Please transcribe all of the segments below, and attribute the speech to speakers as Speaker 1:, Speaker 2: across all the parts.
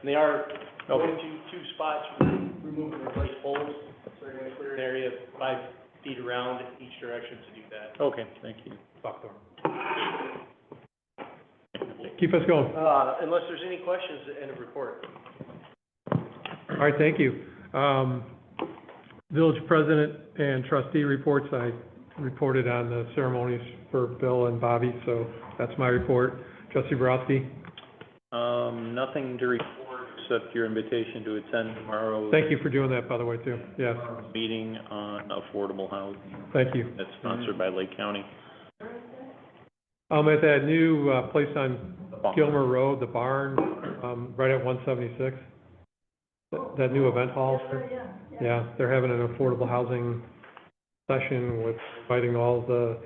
Speaker 1: And they are going
Speaker 2: Okay,
Speaker 1: to two spots, remove and replace poles, so they're gonna clear an area five feet around each direction to do that.
Speaker 2: okay, thank you. Keep us going.
Speaker 1: Uh, unless there's any questions, end of report.
Speaker 2: All right, thank you. Um, Village president and trustee reports, I reported on the ceremonies for Bill and Bobby, so that's my report. Trustee Borowski,
Speaker 3: Um, nothing to report except your invitation to attend tomorrow's
Speaker 2: thank you for doing that, by the way, too. Yes,
Speaker 3: meeting on affordable housing
Speaker 2: thank you.
Speaker 3: that's sponsored by Lake County.
Speaker 2: Um, at that new, uh, place on Gilmer Road, the barn, um, right at one seventy-six, that, that new event hall. Yeah, they're having an affordable housing session with inviting all the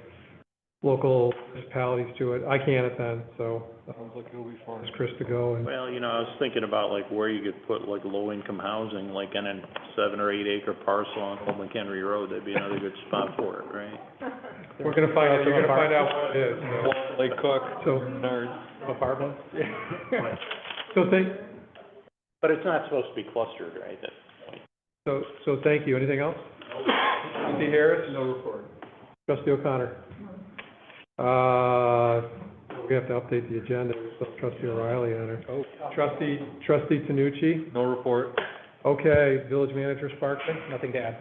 Speaker 2: local municipalities to it. I can't attend, so. Sounds like it'll be fun. Chris to go and,
Speaker 3: Well, you know, I was thinking about like where you could put like low-income housing, like in a seven or eight acre parcel on Old McHenry Road, that'd be another good spot for it, right?
Speaker 2: we're gonna find, out. you're gonna find out what it is, so.
Speaker 3: Lake Cook,
Speaker 2: So,
Speaker 3: apartments.
Speaker 2: so thank,
Speaker 3: But it's not supposed to be clustered, right? That-
Speaker 2: so, so thank you. Anything else? Trustee Harris? No report. Trustee O'Connor? Uh, we have to update the agenda. We still have Trustee O'Reilly on her.
Speaker 3: Oh.
Speaker 2: Trustee, trustee Tanucci?
Speaker 3: No report.
Speaker 2: Okay, village manager Sparkman? Nothing to add.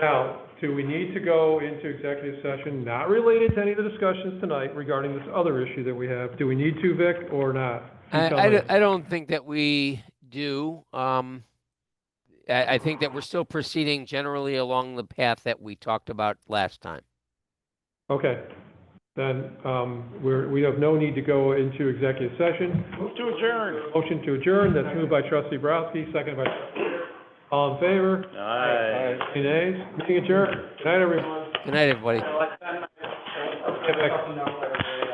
Speaker 2: Now, do we need to go into executive session, not related to any of the discussions tonight regarding this other issue that we have? Do we need to, Vic, or not? You
Speaker 4: I,
Speaker 2: tell
Speaker 4: I,
Speaker 2: me.
Speaker 4: don't- I don't think that we do. Um, I, I think that we're still proceeding generally along the path that we talked about last time.
Speaker 2: Okay, then, um, we're, we have no need to go into executive session.
Speaker 1: Move to adjourn.
Speaker 2: Motion to adjourn, that's moved by trustee Borowski, seconded by, all in favor?
Speaker 3: Aye.
Speaker 2: Any nays? Meeting adjourned. Good night, everyone.
Speaker 4: Good night, everybody.
Speaker 1: Now, I- I'm- I'm- I'm-
Speaker 2: Get back.
Speaker 1: I'm-